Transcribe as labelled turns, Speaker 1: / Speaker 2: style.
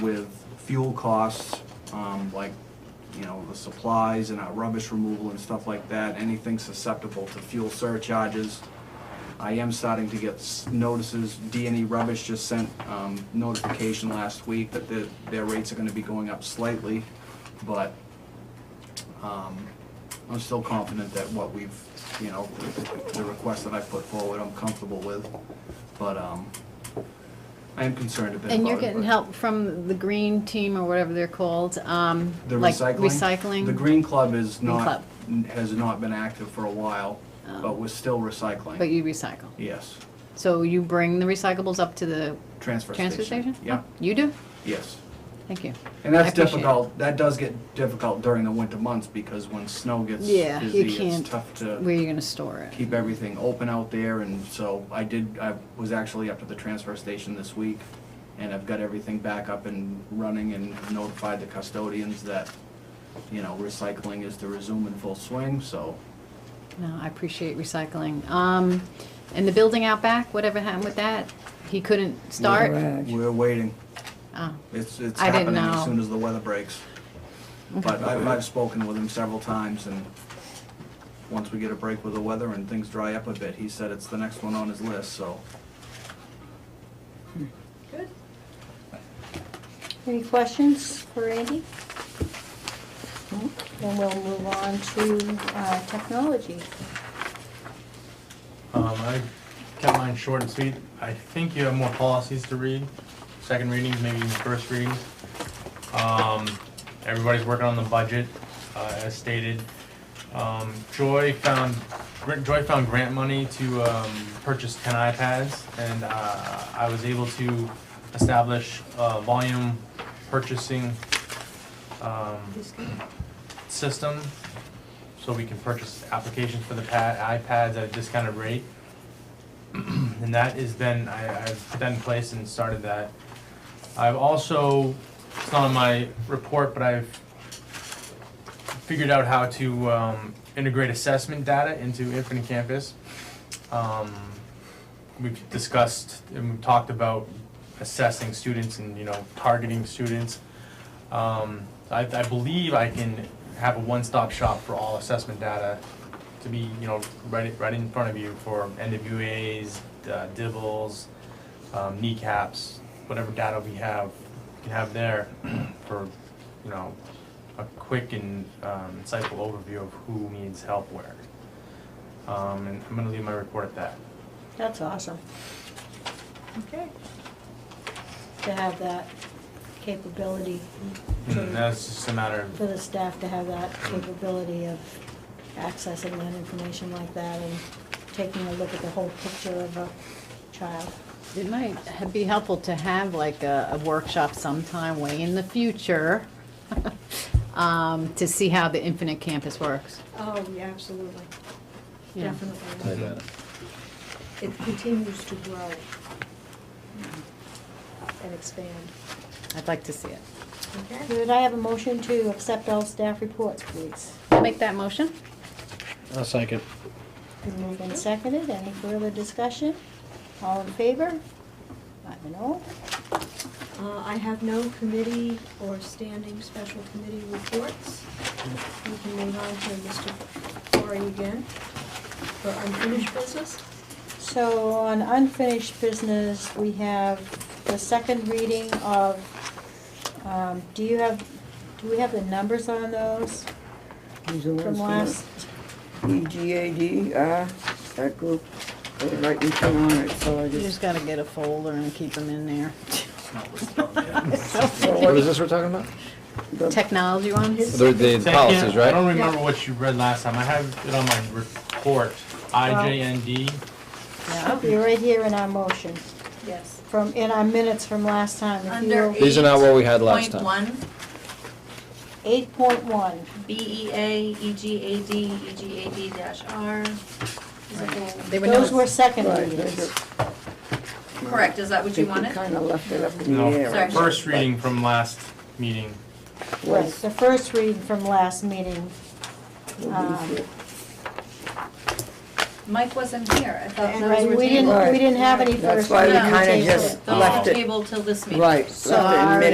Speaker 1: with fuel costs, um, like, you know, the supplies and our rubbish removal and stuff like that, anything susceptible to fuel surcharges. I am starting to get s- notices, D and E Rubbish just sent, um, notification last week that their, their rates are gonna be going up slightly, but, um, I'm still confident that what we've, you know, the request that I put forward, I'm comfortable with, but, um, I am concerned a bit about it.
Speaker 2: And you're getting
Speaker 1: but-
Speaker 2: help from the green team or whatever they're called, um,
Speaker 1: The
Speaker 2: like
Speaker 1: recycling?
Speaker 2: recycling?
Speaker 1: The Green Club is
Speaker 2: Green
Speaker 1: not,
Speaker 2: Club. Oh.
Speaker 1: n- has not been active for a while, but we're still
Speaker 2: But
Speaker 1: recycling.
Speaker 2: you recycle.
Speaker 1: Yes.
Speaker 2: So you bring the recyclables up to the
Speaker 1: Transfer station.
Speaker 2: transfer station?
Speaker 1: Yeah,
Speaker 2: You do?
Speaker 1: yes.
Speaker 2: Thank you.
Speaker 1: And
Speaker 2: I
Speaker 1: that's
Speaker 2: appreciate it.
Speaker 1: difficult, that does get difficult during the winter months because when snow gets
Speaker 2: Yeah, you
Speaker 1: busy,
Speaker 2: can't-
Speaker 1: it's tough
Speaker 2: Where
Speaker 1: to
Speaker 2: are you gonna store it?
Speaker 1: keep everything open out there. And so I did, I was actually up to the transfer station this week and I've got everything back up and running and notified the custodians that, you know, recycling is to resume in full swing, so
Speaker 2: No, I appreciate recycling. Um, and the building out back, whatever happened with that? He couldn't start?
Speaker 3: Garage.
Speaker 1: We're waiting.
Speaker 2: Oh,
Speaker 1: It's, it's
Speaker 2: I didn't
Speaker 1: happening as
Speaker 2: know.
Speaker 1: soon as the weather breaks. But I've, I've spoken with him several times, and once we get a break with the weather and things dry up a bit, he said it's the next one on his list, so.
Speaker 4: Any questions for Andy? Then we'll move on to uh, technology.
Speaker 5: Um, I kept mine short and sweet. I think you have more policies to read, second readings, maybe even first readings. Um, everybody's working on the budget, uh, as stated. Um, Joy found, Gr- Joy found grant money to, um, purchase ten iPads, and, uh, I was able to establish, uh, volume purchasing, um, system, so we can purchase applications for the pad, iPads at a discounted rate. And that is then, I, I've put that in place and started that. I've also, it's not on my report, but I've figured out how to, um, integrate assessment data into Infinite Campus. Um, we've discussed and we've talked about assessing students and, you know, targeting students. Um, I, I believe I can have a one-stop shop for all assessment data to be, you know, right, right in front of you for NWAs, uh, DIBELs, um, kneecaps, whatever data we have, we can have there for, you know, a quick and um, insightful overview of who needs help where. Um, and I'm gonna leave my report at that.
Speaker 4: That's awesome. Okay. To have that capability,
Speaker 5: And Mm-hmm. that's just a matter
Speaker 4: for
Speaker 5: of,
Speaker 4: the staff to have that capability of accessing that information like that and taking a look at the whole picture of a child.
Speaker 2: It might ha- be helpful to have like a, a workshop sometime way in the future, um, to see how the Infinite Campus works.
Speaker 6: Oh, yeah, absolutely,
Speaker 2: you know?
Speaker 6: definitely. It continues to grow and expand.
Speaker 2: I'd like to see it.
Speaker 6: Okay.
Speaker 4: Could I have a motion to accept all staff reports, please?
Speaker 2: I'll make that motion.
Speaker 3: I'll second.
Speaker 4: Been moved and seconded, any further discussion? All in favor? Five and oh.
Speaker 6: Uh, I have no committee or standing special committee reports. We can move on to Mr. Corey again for unfinished business.
Speaker 4: So on unfinished business, we have the second reading of, um, do you have, do we have the numbers on those
Speaker 3: These are
Speaker 4: from last?
Speaker 3: EGAD, uh, that group, they're right in front on it, so I
Speaker 2: You
Speaker 3: just.
Speaker 2: just gotta get a folder and keep them in there.
Speaker 1: It's not listed on there.
Speaker 7: What is this we're talking about?
Speaker 3: the-
Speaker 2: Technology ones?
Speaker 7: The, the
Speaker 5: Say, I can't-
Speaker 7: policies,
Speaker 5: I don't
Speaker 7: right?
Speaker 5: remember what you read last time. I have it on my report, IJND.
Speaker 2: Yeah.
Speaker 4: They're right here in our motion,
Speaker 6: Yes.
Speaker 4: from, in our minutes from last time. If you-
Speaker 8: Under
Speaker 7: These are not what we had last
Speaker 8: Point
Speaker 7: time.
Speaker 8: one,
Speaker 4: Eight point one,
Speaker 8: B E A, E G A D, E G A D dash R. Is it the-
Speaker 2: They
Speaker 4: those
Speaker 2: notes.
Speaker 4: were second
Speaker 3: Right,
Speaker 4: readings.
Speaker 3: that's
Speaker 8: Correct, is that what you wanted?
Speaker 3: Kind of left it up in the
Speaker 5: No,
Speaker 3: air.
Speaker 8: Sorry.
Speaker 5: First reading from last meeting.
Speaker 4: Right, the first reading from last meeting. Um,
Speaker 8: Mike wasn't here, I thought those
Speaker 4: Right,
Speaker 8: were
Speaker 4: we didn't,
Speaker 8: tabled.
Speaker 4: we didn't have any
Speaker 3: That's
Speaker 4: first
Speaker 3: why
Speaker 4: reading.
Speaker 3: we
Speaker 8: No.
Speaker 3: kinda
Speaker 4: tabled
Speaker 3: just
Speaker 4: it.
Speaker 8: Those
Speaker 5: left
Speaker 8: were
Speaker 3: it.
Speaker 8: tabled till this meeting.
Speaker 3: Right, left it in
Speaker 2: Sorry.